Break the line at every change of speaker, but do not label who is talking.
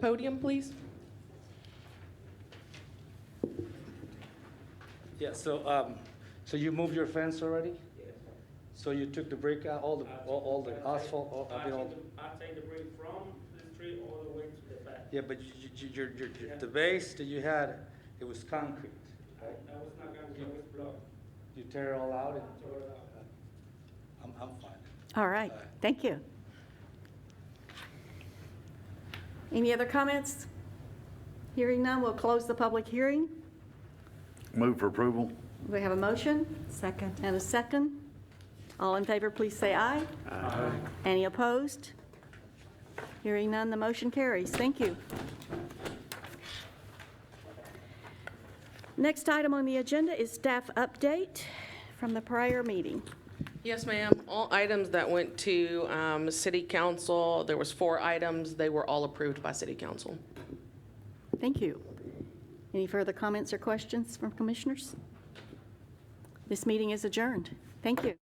Podium, please.
Yeah, so, um, so you moved your fence already? So you took the brick out, all the,
Uh,
all all the asphalt, all, I mean, all,
I take the break from the street all the way to the back.
yeah, but you, you, your, your, your- the base that you had, it was concrete.
I, I was not gonna give this block.
You tear it all out and,
Throw it out.
I'm, I'm fine.
All right, thank you. Any other comments? Hearing none, we'll close the public hearing.
Move for approval?
We have a motion? Second. And a second. All in favor, please say aye. Aye. Any opposed? Hearing none, the motion carries. Thank you. Next item on the agenda is staff update from the prior meeting.
Yes, ma'am. All items that went to um, city council, there was four items, they were all approved by city council.
Thank you. Any further comments or questions from commissioners? This meeting is adjourned. Thank you.